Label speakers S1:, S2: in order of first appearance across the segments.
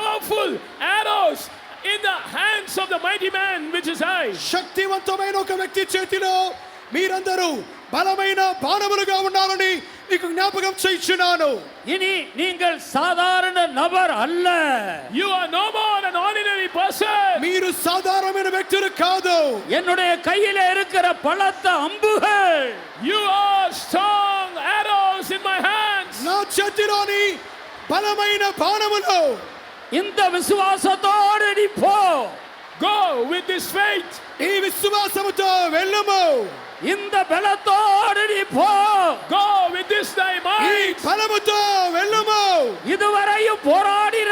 S1: powerful arrows in the hands of the mighty man which is I.
S2: శక్తివంతమైన ఒక వ్యక్తి చేతిలో మీరందరూ బలమైన బాణములుగా ఉన్నారని మీకు జ్ఞాపకం చేయించున్నాను
S3: இனி நீங்கள் சாதாரண நபர் அல்ல
S1: You are no more an ordinary person.
S2: మీరు సాధారణమైన వ్యక్తులు కాదు
S3: என்னுடைய கையில இருக்கிற பலத்த அம்புகள்
S1: You are strong arrows in my hands.
S2: నా చేతిలోని బలమైన బాణములు
S3: இந்த விசுவாசத்தோடு நீ போ
S1: Go with this faith.
S2: ఈ విశ్వాసముతో వెళ్ళము
S3: இந்த பலத்தோடு நீ போ
S1: Go with this thy
S2: ఈ
S1: might.
S2: బలముతో వెళ్ళము
S3: இதுவரையும் போராடின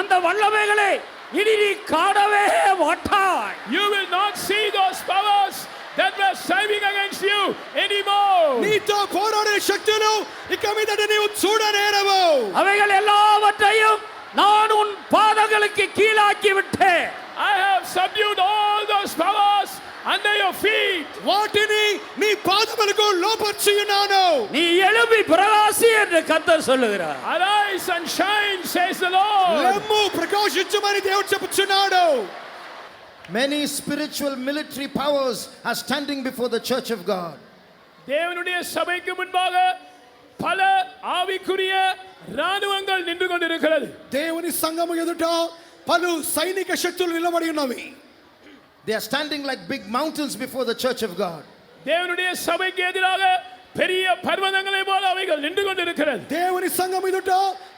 S3: அந்த வல்லமைகளை இனி நீ காணவே மாட்டாய்
S1: You will not see those powers that were striving against you anymore.
S2: నీతో పోరాడే శక్తులు ఇక మీద నీవు చూడనేరవు
S3: அவைகள் எல்லாவற்றையும் நான் உன் பாதங்களுக்கு கீழாக்கி விட்டேன்
S1: I have subdued all those powers under your feet.
S2: వాటిని నీ పాదములకు లోపర్చియున్నాను
S3: நீ எழும்பி பிரகாசி என்று கத்தர் சொல்லுகிறார்
S1: Arise and shine, says the Lord.
S2: లెమ్ము ప్రకాశించమని దేవుడు చెప్పుచున్నాడు
S4: Many spiritual military powers are standing before the church of God.
S1: தேவனுடைய சபைக்கு முன்பாக பல ஆவிக்குரிய ராணுவங்கள் நின்று கொண்டிருக்கிறது
S2: దేవుని సంఘము ఎదుట పలు సైనిక శక్తులు నిలబడి ఉన్నవి
S4: They are standing like big mountains before the church of God.
S1: தேவனுடைய சபைக்கு எதிராக பெரிய பர்வதங்களை போல அவைகள் நின்று கொண்டிருக்கிறது
S2: దేవుని సంఘం ఎదుట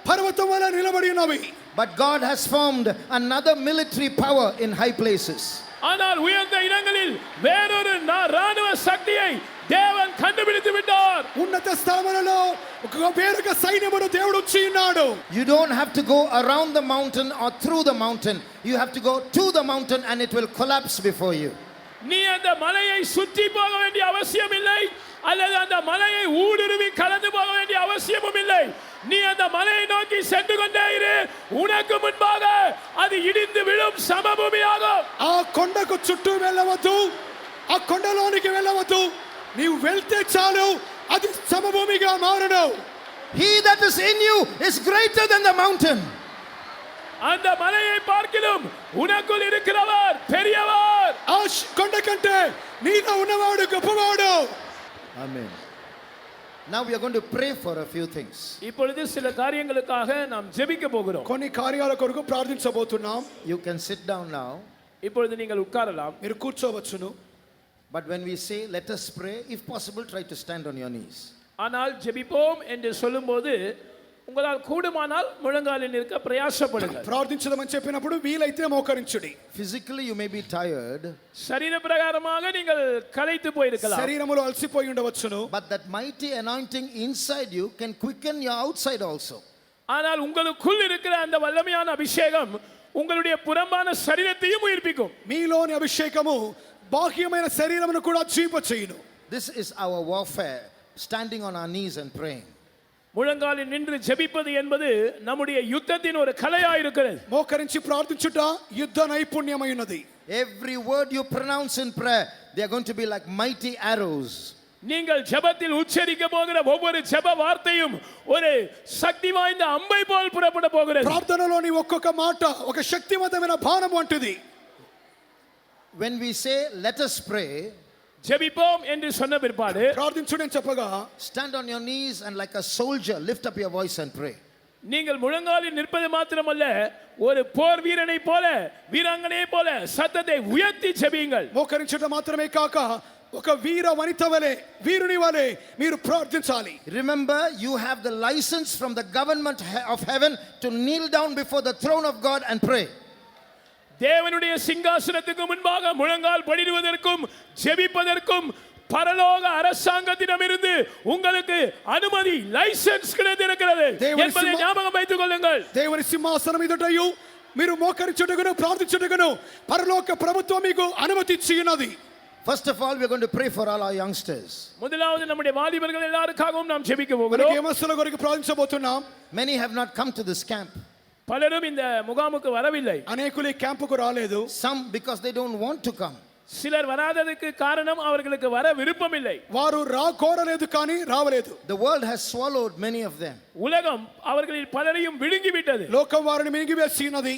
S2: పర్వతం వల్ల నిలబడి ఉన్నవి
S4: But God has formed another military power in high places.
S1: ஆனால் உயர்ந்த இடங்களில் வேறொரு நா- ராணுவ சக்தியை தேவன் கண்டுபிடித்து விட்டார்
S2: ఉన్నత స్థలములలో ఒక వేరొక సైన్యమును దేవుడు ఉంచి ఉన్నాడు
S4: You don't have to go around the mountain or through the mountain. You have to go to the mountain and it will collapse before you.
S1: நீ அந்த மலையை சுற்றி போக வேண்டிய அவசியம் இல்லை அல்லது அந்த மலையை ஊடுருவி கலந்து போக வேண்டிய அவசியமும் இல்லை நீ அந்த மலையை நோக்கி சென்று கொண்டே இரு உனக்கு முன்பாக அது இடிந்து விழும் சமபூமியாகும்
S2: ఆ కొండకు చుట్టూ వెళ్ళవద్దు ఆ కొండలోనికి వెళ్ళవద్దు నీవు వెళ్తే చాలు అది సమభూమిగా మారడు
S4: He that is in you is greater than the mountain.
S1: அந்த மலையை பார்க்கிலும் உனக்குள் இருக்கிறவர் பெரியவர்
S2: ఆ శ్- కొండ కంటే నీలో ఉన్నవాడు గొప్పవాడు
S4: Amen. Now we are going to pray for a few things.
S1: இப்பொழுது சில காரியங்களுக்காக நாம் ஜெபிக்க போகிறோம்
S2: కొన్ని కార్యాల కొరకు ప్రార్థించబోతున్నాం
S4: You can sit down now.
S1: இப்பொழுது நீங்கள் உட்காரலாம்
S2: మీరు కూర్చోవచ్చును
S4: But when we say, let us pray, if possible, try to stand on your knees.
S1: ஆனால் ஜெபிப்போம் என்று சொல்லும்போது உங்களால் கூடுமானால் முழங்காலில் இருக்க பிரயாசப்படுங்கள்
S2: ప్రార్థించదమని చెప్పినప్పుడు వీలైతే మోకరించుడి
S4: Physically, you may be tired,
S1: சரீர பிரகாரமாக நீங்கள் கலைத்து போயிருக்கலாம்
S2: శరీరములో అలసిపోయి ఉండవచ్చును
S4: but that mighty anointing inside you can quicken your outside also.
S1: ஆனால் உங்களுக்குள் இருக்கிற அந்த வல்லமையான அபிஷேகம் உங்களுடைய புறம்பான சரீரத்தையும் உயிர்ப்பிக்கும்
S2: మీలోని అభిషేకము బాహ్యమైన శరీరమును కూడా జీవ చేయును
S4: This is our warfare, standing on our knees and praying.
S1: முழங்காலில் நின்று ஜெபிப்பது என்பது நம்முடைய யுத்தத்தின் ஒரு கலையா இருக்கிறது
S2: మోకరించి ప్రార్థించుట యుద్ధ నైపుణ్యమైనది
S4: Every word you pronounce in prayer, they are going to be like mighty arrows.
S1: நீங்கள் ஜெபத்தில் உச்சரிக்க போகிற ஒவ்வொரு ஜெப வார்த்தையும் ஒரு சக்தி வாய்ந்த அம்பை போல் புறப்பட போகிறது
S2: ప్రార్థనలోని ఒక్కొక్క మాట ఒక శక్తివంతమైన బాణం వంటిది
S4: When we say, let us pray,
S1: ஜெபிப்போம் என்று சொன்ன பிற்பாடு
S2: ప్రార్థించుడని చెప్పగా
S4: stand on your knees and like a soldier, lift up your voice and pray.
S1: நீங்கள் முழங்காலில் நிற்பது மாத்திரமல்ல ஒரு போர் வீரனை போல வீராங்கனையை போல சத்தத்தை உயர்த்தி ஜெபியுங்கள்
S2: మోకరించుట మాత్రమే కాక ఒక వీర వనిత వలె వీరుని వలె మీరు ప్రార్థించాలి
S4: Remember, you have the license from the government he- of heaven to kneel down before the throne of God and pray.
S1: தேவனுடைய சிங்காசனத்துக்கு முன்பாக முழங்கால் படிடுவதற்கும் ஜெபிப்பதற்கும் பரலோக அரசாங்கத்திடமிருந்து உங்களுக்கு அனுமதி லைசென்ஸ் கிடைத்திருக்கிறது
S2: தேவன்
S1: என்பதை
S2: சும்மா-
S1: ஞாபகம் வைத்துக் கொள்ளுங்கள்
S2: దేవుని సింహాసనం ఎదుటయు మీరు మోకరించుటకును ప్రార్థించుటకును పరలోక ప్రభుత్వం మీకు అనుమతి ఇచ్చి ఉన్నది
S4: First of all, we're going to pray for all our youngsters.
S1: முதலாவது நம்முடைய வாலிபர்கள் எல்லாருக்காகவும் நாம் ஜெபிக்க
S2: మనకి
S1: போகிறோம்
S2: ఏమస్తుల కొరకు ప్రార్థించబోతున్నాం
S4: Many have not come to this camp.
S1: பலரும் இந்த முகாமுக்கு வரவில்லை
S2: అనేకులు ఈ క్యాంపుకు రాలేదు
S4: Some because they don't want to come.
S1: சிலர் வராததுக்கு காரணம் அவர்களுக்கு வர விருப்பமில்லை
S2: వారు రా కోరలేదు కానీ రావలేదు
S4: The world has swallowed many of them.
S1: உலகம் அவர்களில் பலரையும் விழுங்கிவிட்டது
S2: లోకం వారిని మింగివేసినది